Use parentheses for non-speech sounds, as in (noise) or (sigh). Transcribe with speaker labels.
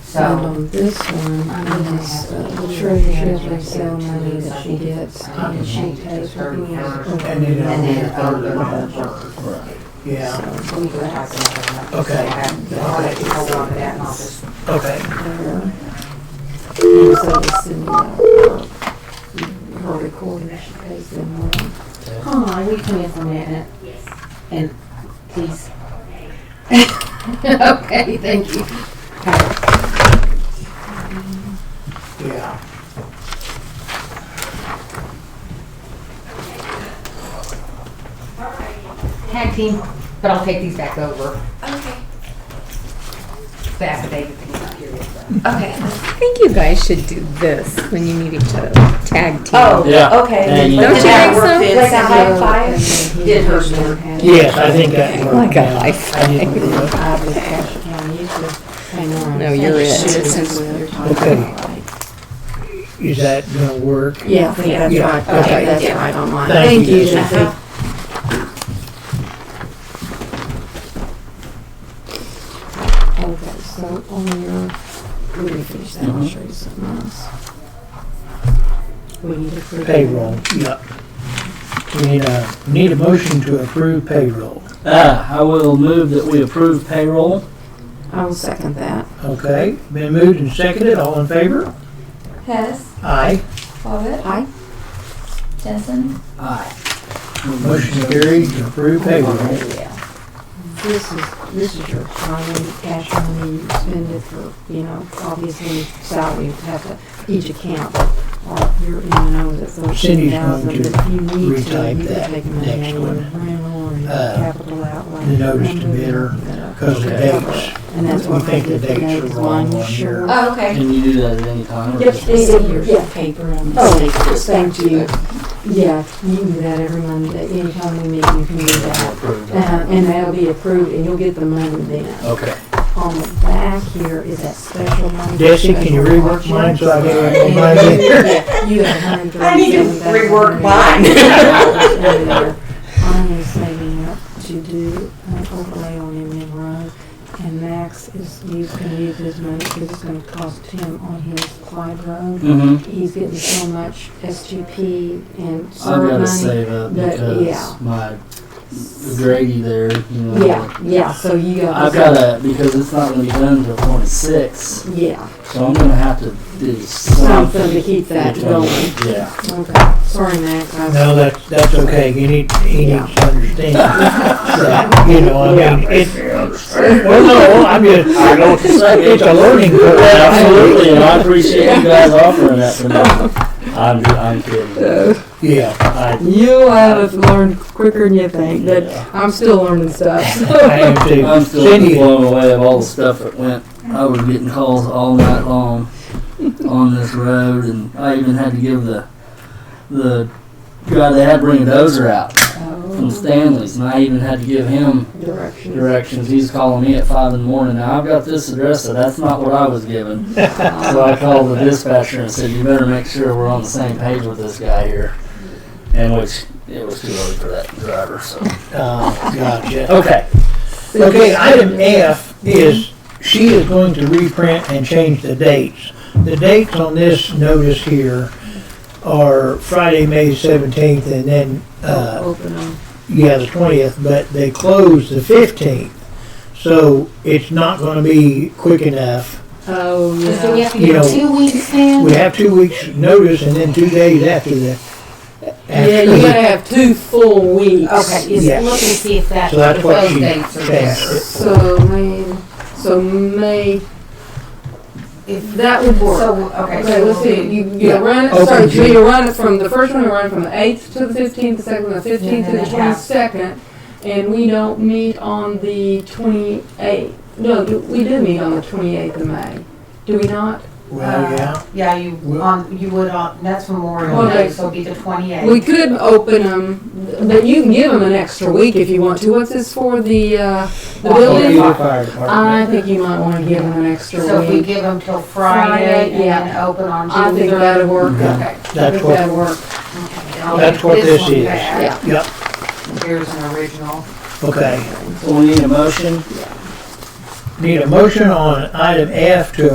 Speaker 1: And
Speaker 2: So,
Speaker 1: on Um, this one, I guess, uh, the treasurer will sell money that she gets,
Speaker 2: uh,
Speaker 1: and she pays her bills.
Speaker 3: And then
Speaker 2: and
Speaker 3: on
Speaker 2: then
Speaker 3: the
Speaker 2: third
Speaker 3: third
Speaker 2: and the
Speaker 3: one.
Speaker 2: third.
Speaker 4: Right.
Speaker 3: Yeah,
Speaker 2: We were talking about that.
Speaker 3: Okay.
Speaker 2: So, I'll let you hold on to that and I'll just.
Speaker 3: okay.
Speaker 1: And so it's in, uh, her recorder, she pays them more.
Speaker 2: Hold on, we can implement it. And please.
Speaker 5: (laughs)
Speaker 2: Okay, thank you.
Speaker 3: Yeah.
Speaker 2: Tag team, but I'll take these back over.
Speaker 6: Okay.
Speaker 2: The affidavit that he's not here yet, so.
Speaker 6: Okay.
Speaker 5: I think you guys should do this when you meet each other. Tag team.
Speaker 6: Oh,
Speaker 4: Yeah. Yeah,
Speaker 6: okay.
Speaker 4: you-
Speaker 5: Don't you
Speaker 6: And that
Speaker 5: think
Speaker 6: worked
Speaker 5: so?
Speaker 6: in
Speaker 5: Like
Speaker 6: some
Speaker 1: So,
Speaker 6: high
Speaker 1: and
Speaker 6: five?
Speaker 1: then
Speaker 6: Did
Speaker 1: he
Speaker 6: her
Speaker 1: doesn't
Speaker 6: work.
Speaker 1: have-
Speaker 3: Yes, I think that worked.
Speaker 5: Like a
Speaker 3: now.
Speaker 5: high five.
Speaker 3: I didn't look.
Speaker 1: I would cash it down, you should pay more.
Speaker 5: No, you're it.
Speaker 1: Since we're talking
Speaker 3: Okay.
Speaker 1: about it.
Speaker 3: Is that gonna work?
Speaker 1: Yeah, I think that's
Speaker 3: Yeah.
Speaker 1: right, I
Speaker 3: Okay.
Speaker 1: think that's right on mine.
Speaker 3: Thank you. Thank you.
Speaker 1: Uh-huh. Okay, so on your, let me finish that, I'll show you something else. We need to. prove-
Speaker 3: Payroll, yep. We need a, need a motion to approve payroll,
Speaker 4: Uh, I will move that we approve payroll.
Speaker 1: I will second that.
Speaker 3: okay? Been moved and seconded, all in favor?
Speaker 6: Hess,
Speaker 3: Aye.
Speaker 6: Bobbit,
Speaker 1: Aye.
Speaker 6: Jensen.
Speaker 4: Aye.
Speaker 3: Motion carried to approve payroll.
Speaker 1: This is, this is your highway cash money, you spend it for, you know, obviously salary, you have to, each account. Or your M and O is at thirteen
Speaker 3: Cindy's going
Speaker 1: thousand,
Speaker 3: to
Speaker 1: but if you need to,
Speaker 3: retype
Speaker 1: you
Speaker 3: that
Speaker 1: can take money
Speaker 3: next
Speaker 1: out of your rental or your
Speaker 3: Uh,
Speaker 1: capital outlay. uh,
Speaker 3: the notice to bidder, Because the dates,
Speaker 1: And that's
Speaker 3: we
Speaker 1: what I
Speaker 3: think the
Speaker 1: did today,
Speaker 3: dates
Speaker 1: because
Speaker 3: are wrong
Speaker 1: one
Speaker 3: on here.
Speaker 1: sure.
Speaker 2: Uh,
Speaker 6: Oh, okay.
Speaker 4: Can you do that at any time? or
Speaker 1: Uh, Yep,
Speaker 4: just-
Speaker 1: they said here's the paper and the stakes, Oh, thank you. Yeah, you can do that every Monday, anytime we meet, you can do that.
Speaker 4: Approved.
Speaker 1: Uh, and that'll be approved, and you'll get the money then.
Speaker 4: Okay.
Speaker 1: On the back here is that special money. for
Speaker 3: Jesse, can you
Speaker 1: special
Speaker 3: rework
Speaker 1: auction.
Speaker 3: mine so I
Speaker 1: And
Speaker 3: can
Speaker 1: then
Speaker 3: have mine in
Speaker 1: you
Speaker 3: here?
Speaker 1: get- You have hundred
Speaker 2: I need to
Speaker 1: thirty-seven
Speaker 2: rework
Speaker 1: thousand
Speaker 2: mine.
Speaker 1: in there. Mine is saving up to do an overlay on Indian Road, and Max is, you can use his money, because it's gonna cost him on his Clyde Road.
Speaker 4: Mm-hmm.
Speaker 1: He's getting so much SGP and
Speaker 4: I've
Speaker 1: serve
Speaker 4: gotta
Speaker 1: money.
Speaker 4: save up
Speaker 1: but, yeah.
Speaker 4: because my Grady there, you know.
Speaker 1: Yeah, yeah, so you got.
Speaker 4: I've gotta, because it's not gonna be done until twenty-six,
Speaker 1: Yeah,
Speaker 4: so I'm gonna have to do
Speaker 1: something to
Speaker 4: something.
Speaker 1: keep that
Speaker 4: to-
Speaker 1: going.
Speaker 4: Yeah.
Speaker 1: Okay, sorry, Max. I-
Speaker 3: No, that's, that's okay, he need, he
Speaker 1: Yeah.
Speaker 3: needs to
Speaker 4: (laughs)
Speaker 3: understand. that, You know, I mean, it, well, no, I mean,
Speaker 4: I know what you're saying.
Speaker 3: it's a learning curve.
Speaker 4: Absolutely, and I appreciate you guys offering that for me. I'm, I'm kidding.
Speaker 3: Yeah,
Speaker 4: I,
Speaker 1: You have learned quicker than you think, but I'm still learning stuff.
Speaker 3: (laughs) I am
Speaker 4: I'm
Speaker 3: too.
Speaker 4: still
Speaker 3: Cindy,
Speaker 4: blown away of all the stuff that went. I was getting calls all night long on this road, and I even had to give the the guy they had bring a dozer out from Stanley's, and I even had to give him
Speaker 1: Oh. Directions.
Speaker 4: directions. He's calling me at five in the morning. Now I've got this address, so that's not what I was given. so I called the dispatcher and said, "You better make sure we're on the same page with this guy here." And which it was too early for that driver. So
Speaker 3: uh, gotcha.
Speaker 4: okay,
Speaker 3: Okay, item uh, F is, she is going to reprint and change the dates. The dates on this notice here are Friday, May seventeenth, and then, uh,
Speaker 1: Oh, Open them.
Speaker 3: yeah, the twentieth, but they close the fifteenth. So it's not gonna be quick enough.
Speaker 1: Oh,
Speaker 2: So we
Speaker 1: yeah.
Speaker 2: have to
Speaker 3: You
Speaker 2: give
Speaker 3: know,
Speaker 2: two weeks then?
Speaker 3: We have two weeks' notice and then two days after the.
Speaker 1: Yeah, you gotta have two full weeks.
Speaker 2: Okay,
Speaker 3: Yeah.
Speaker 2: just look and see if that,
Speaker 3: So that's
Speaker 2: if
Speaker 3: what
Speaker 2: those
Speaker 3: she
Speaker 2: dates are there.
Speaker 3: changed.
Speaker 1: So, May, so May,
Speaker 2: If
Speaker 1: that would work.
Speaker 2: So, okay,
Speaker 1: Okay, let's
Speaker 2: so
Speaker 1: see,
Speaker 2: we'll do.
Speaker 1: you, you run it,
Speaker 3: Open
Speaker 1: so
Speaker 3: June.
Speaker 1: you run it from, the first one, you run it from the eighth to the fifteenth, the second, one, the fifteenth to
Speaker 2: And
Speaker 1: the
Speaker 2: then a half.
Speaker 1: twenty-second. And we don't meet on the twenty-eighth, no, do- we do meet on the twenty-eighth of May, do we not?
Speaker 3: Well,
Speaker 1: uh,
Speaker 3: yeah,
Speaker 2: Uh, Yeah, you,
Speaker 3: Well-
Speaker 2: on, you would on, that's Memorial
Speaker 1: Okay.
Speaker 2: Day, so it'd be the twenty-eighth.
Speaker 1: We could open them, but you can give them an extra week if you want to. What's this for, the, uh, the building?
Speaker 3: Well, fire
Speaker 1: I
Speaker 3: department.
Speaker 1: think you might wanna give them an extra
Speaker 2: So if we
Speaker 1: week.
Speaker 2: give them till Friday
Speaker 1: Friday,
Speaker 2: and then open on June.
Speaker 1: I think
Speaker 2: third.
Speaker 1: that'd work.
Speaker 2: Okay.
Speaker 1: I
Speaker 3: That's
Speaker 1: think
Speaker 3: what,
Speaker 1: that'd work.
Speaker 2: I'll
Speaker 3: Mm-hmm. That's
Speaker 2: make
Speaker 3: what this
Speaker 2: one
Speaker 3: is.
Speaker 2: back.
Speaker 1: Yeah.
Speaker 3: yep,
Speaker 2: Here's an original.
Speaker 3: okay.
Speaker 4: so we need a motion.
Speaker 3: Need a motion on item F to